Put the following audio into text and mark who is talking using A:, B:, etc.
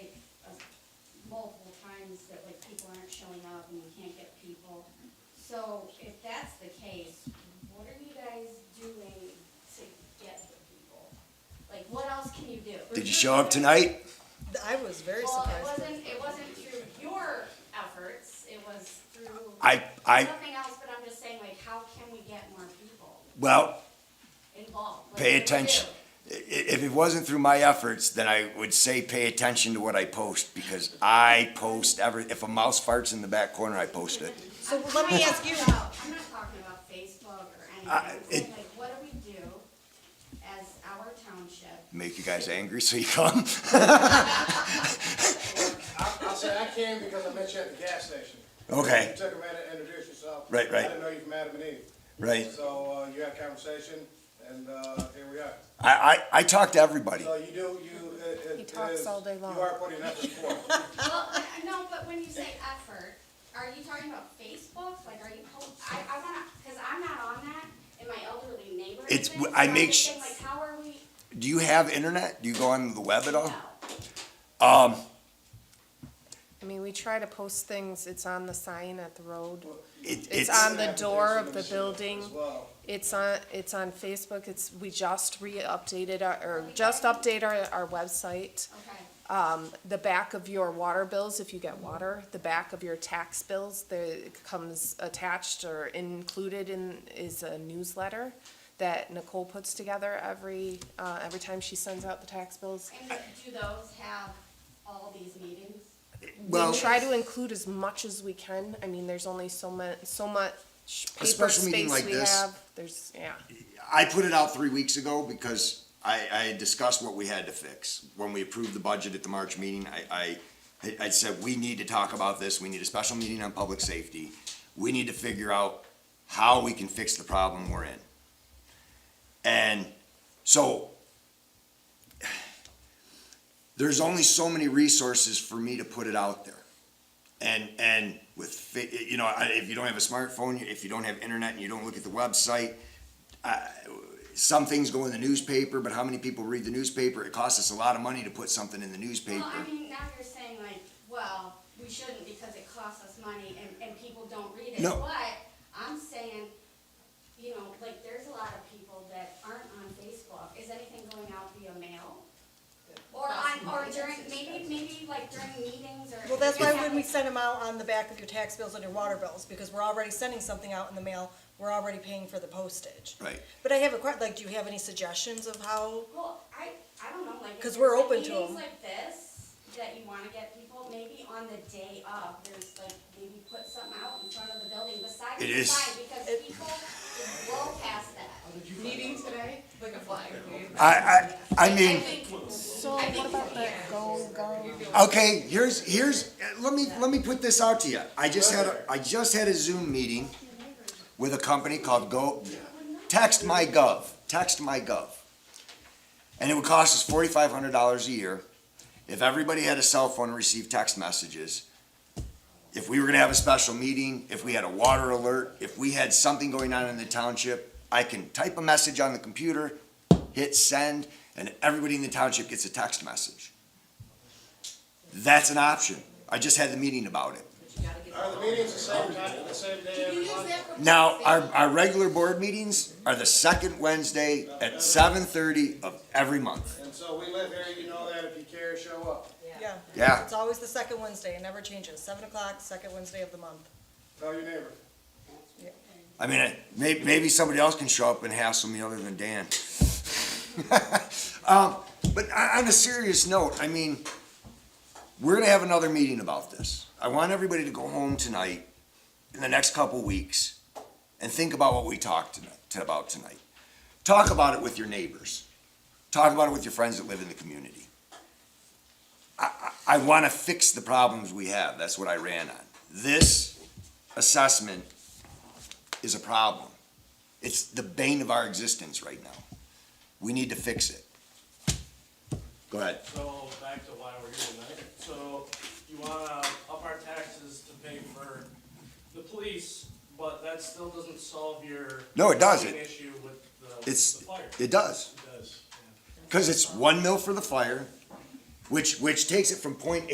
A: uh, times that like people aren't showing up and we can't get people. So if that's the case, what are you guys doing to get the people? Like, what else can you do?
B: Did you show up tonight?
C: I was very
A: Well, it
C: surprised.
A: wasn't, it wasn't through your efforts, it was through
B: I, I,
A: something else, but I'm just saying, like, how can we get more people
B: well,
A: involved? Like,
B: pay
A: what do we
B: attention.
A: do?
B: I- If it wasn't through my efforts, then I would say pay attention to what I post because I post every, if a mouse farts in the back corner, I post it.
C: So let me ask you,
A: about- I'm not talking about Facebook or anything,
B: I-
A: I'm
B: Uh, it-
A: saying, like, what do we do as our township?
B: Make you guys angry so you come.
D: I, I said I came because I met you at the gas station. You
B: Okay,
D: took a minute to introduce yourself.
B: Right, right.
D: I didn't know you from Adam and Eve.
B: right.
D: So, uh, you had a conversation, and, uh, here we are.
B: I, I, I talk to everybody.
D: So you do, you, it, it is.
C: He talks all day long.
D: You are putting effort forth.
A: Well,
C: Uh-huh.
A: I- no, but when you say effort, are you talking about Facebook? Like, are you, po- I, I wanna, cause I'm not on that, and my elderly neighbor
B: It's-
A: isn't, so
B: I
A: I'm
B: make
A: just
B: sh-
A: saying, Like, how are we,
B: Do you have internet? Do you go on the web at all?
A: no,
B: Um,
E: I mean, we try to post things, it's on the sign at the road,
B: it,
E: It's
B: it's,
E: on the door of the
D: As well.
E: building. it's on, it's on Facebook, it's, we just re-updated our, or just update our, our website.
A: okay,
E: Um, the back of your water bills, if you get water, the back of your tax bills, there comes attached or included in, is a newsletter that Nicole puts together every, uh, every time she sends out the tax bills.
A: and do those have all these meetings?
B: well,
E: we try to include as much as we can. I mean, there's only so much, so much paper
B: special meeting
E: space
B: like
E: we
B: this.
E: have. There's, yeah.
B: I put it out three weeks ago because I, I had discussed what we had to fix. When we approved the budget at the March meeting, I, I, I said, we need to talk about this, we need a special meeting on public safety. We need to figure out how we can fix the problem we're in. And so there's only so many resources for me to put it out there. And, and with, fa- you know, I- if you don't have a smartphone, if you don't have internet and you don't look at the website, I- some things go in the newspaper, but how many people read the newspaper? It costs us a lot of money to put something in the newspaper.
A: Well, I mean, now you're saying like, well, we shouldn't because it costs us money and, and people don't read it.
B: No.
A: But I'm saying, you know, like, there's a lot of people that aren't on Facebook. Is anything going out via mail? Or on, or during, maybe, maybe like during meetings or.
C: well, that's why when we send them out on the back of your tax bills and your water bills, because we're already sending something out in the mail, we're already paying for the postage.
B: Right.
C: But I have a question, like, do you have any suggestions of how,
A: Well, I, I don't know, like. if
C: 'Cause we're
A: there's, like,
C: open to 'em.
A: Meetings like this, that you wanna get people, maybe on the day of, there's like, maybe put something out in front of the building beside the
B: It is-
A: sign, because people blow past that.
F: meeting today, like a flag. wave.
B: I, I, I mean,
E: So what about the go, go?
B: okay, here's, here's, let me, let me put this out to you. I just had, a I just had a Zoom meeting with a company called Go, Text My Gov, Text My Gov. And it would cost us forty-five hundred dollars a year if everybody had a cell phone and received text messages. If we were gonna have a special meeting, if we had a water alert, if we had something going on in the township, I can type a message on the computer, hit send, and everybody in the township gets a text message. That's an option. I just had the meeting about it.
D: Are the meetings the same time, the same day every month?
B: Now, our, our regular board meetings are the second Wednesday at seven thirty of every month.
D: And so we live here, you know that, if you care, show up.
C: yeah?
B: Yeah.
C: It's always the second Wednesday, it never changes, seven o'clock, second Wednesday of the month.
D: Tell your neighbor.
B: I mean, I- may, maybe somebody else can show up and hassle me other than Dan. um, but on on a serious note, I mean, we're gonna have another meeting about this. I want everybody to go home tonight, in the next couple weeks, and think about what we talked tonight, to- about tonight. Talk about it with your neighbors. Talk about it with your friends that live in the community. I, I, I wanna fix the problems we have. That's what I ran on. This assessment is a problem. It's the bane of our existence right now. We need to fix it. Go ahead.
G: So back to why we're here tonight. So you wanna up our taxes to pay for the police, but that still doesn't solve your.
B: No, it doesn't.
G: Issue with the,
B: It's-
G: the fire.
B: It does,
G: It does.
B: because it's one mil for the fire, which, which takes it from point